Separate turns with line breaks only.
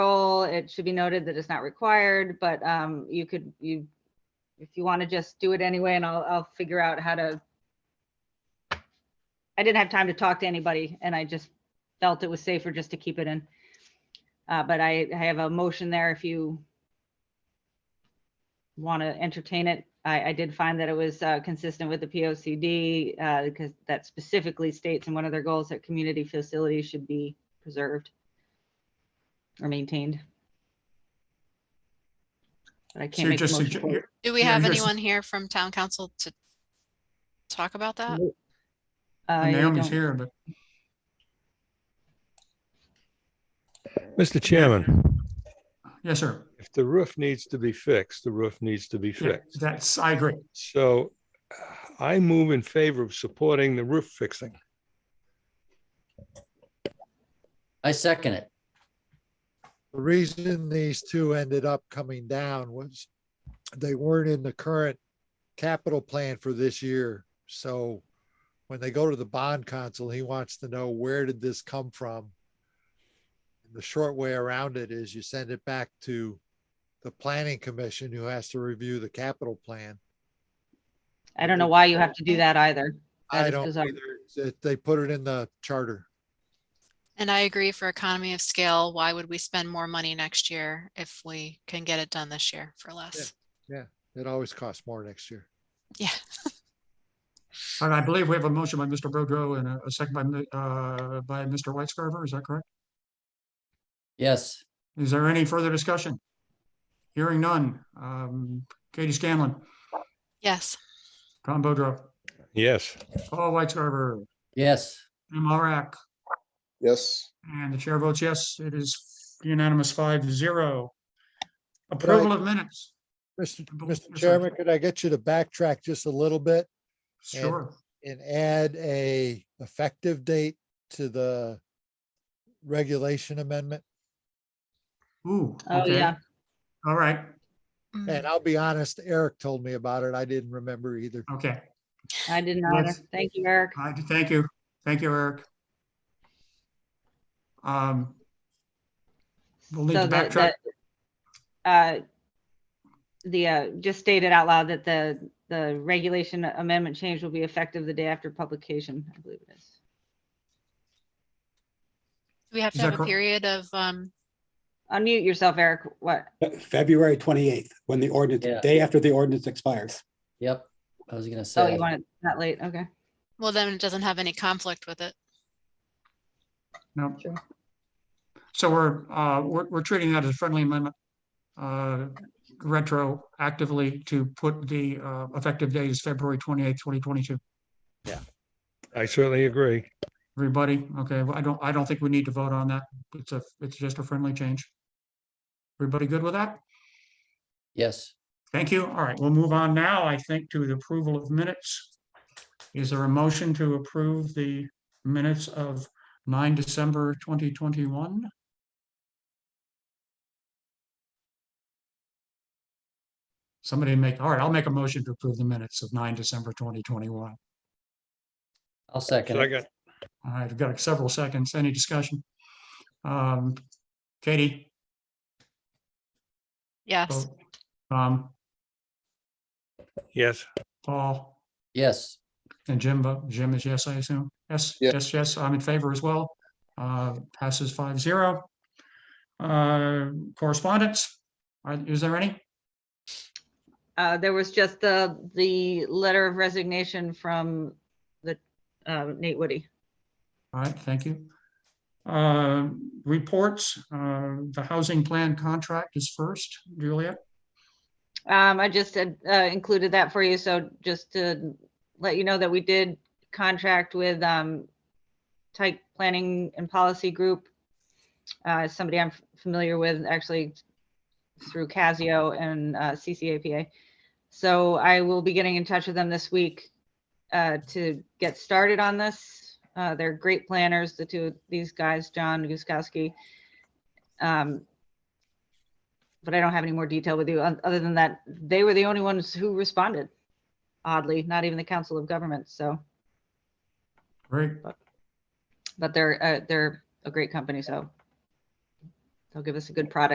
it should be noted that it's not required, but um, you could, you, if you want to just do it anyway, and I'll, I'll figure out how to. I didn't have time to talk to anybody, and I just felt it was safer just to keep it in. Uh, But I, I have a motion there if you want to entertain it. I, I did find that it was uh, consistent with the P O C D, uh, because that specifically states in one of their goals that community facilities should be preserved or maintained. But I
So
can't
you're
make a
just,
motion.
sugge-
for it.
you're-
Do we
Yeah,
have
here's-
anyone here from town council to talk about that?
Uh, you
Naomi's
don't-
here, but
Mr. Chairman,
yes, sir.
if the roof needs to be fixed, the roof needs to be
Yeah,
fixed.
That's, I agree.
So uh, I move in favor of supporting the roof fixing.
I second it.
The reason these two ended up coming down was they weren't in the current capital plan for this year. So when they go to the bond council, he wants to know where did this come from? And The short way around it is you send it back to the planning commission who has to review the capital plan.
I don't know why you have to do that either. That
I
is
don't
bizarre.
either. It- They put it in the charter.
And I agree for economy of scale, why would we spend more money next year if we can get it done this year for less?
It always costs more next year.
Yeah,
And I believe we have a motion by Mr. Boudreau and a- a second by, mi- uh, by Mr. Whitescarver. Is that correct?
Yes,
Is there any further discussion? Hearing none. Um, Katie Scanlon,
yes.
Tom Boudreau,
Yes,
Paul Whitescarver,
yes.
Jim Arak,
yes.
and the chair votes yes. It is unanimous five to zero. Approval of minutes.
Mr.
Bo-
Mr.
sorry.
Chairman, could I get you to backtrack just a little bit? And-
Sure.
and add a effective date to the regulation amendment.
Ooh.
Oh,
okay.
yeah.
All right.
Mm.
And I'll be honest, Eric told me about it. I didn't remember either.
Okay.
I didn't either.
Yes.
Thank you, Eric.
I, thank you. Thank you, Eric. Um, We'll need
So
to
the-
backtrack.
the, uh, The, uh, just stated out loud that the, the regulation amendment change will be effective the day after publication, I believe it is.
Do we have
Is
to
that
have a
cor-
period of, um,
Unmute yourself, Eric. What?
February twenty-eighth, when the ordinance,
Yeah.
day after the ordinance expires.
Yep. I was gonna
Oh, you
say,
want it that late? Okay.
well, then it doesn't have any conflict with it.
No.
Sure.
So we're, uh, we're, we're treating that as a friendly amendment. Uh, retroactively to put the, uh, effective date is February twenty-eighth, twenty twenty-two.
I certainly agree.
Everybody, okay, well, I don't, I don't think we need to vote on that. It's a, it's just a friendly change. Everybody good with that?
yes.
Thank you. All right, we'll move on now, I think, to the approval of minutes. Is there a motion to approve the minutes of nine December twenty twenty-one? Somebody make, all right, I'll make a motion to approve the minutes of nine December twenty twenty-one.
I'll second. it.
Second,
All right, I've got several seconds. Any discussion? Um, Katie?
Yes,
Um,
yes,
Paul?
Yes,
And Jim, vote- Jim is yes, I assume? Yes,
Yeah.
yes, yes, I'm in favor as well. Uh, passes five zero. Uh, correspondence, Are- is there any?
Uh, there was just the, the letter of resignation from the, uh, Nate Woody.
All right, thank you. Uh, reports, uh, the housing plan contract is first, Julia.
Um, I just had, uh, included that for you, so just to let you know that we did contract with, um, Tyke Planning and Policy Group. Uh, somebody I'm familiar with, actually through Casio and, uh, CCAPA. So I will be getting in touch with them this week, uh, to get started on this. Uh, they're great planners, the two, of these guys, John Guskowski. Um, but I don't have any more detail with you. oth- Other than that, they were the only ones who responded. Oddly, not even the Council of Governments. So,
Great,
but they're uh, they're a great company. So they'll give us a good product.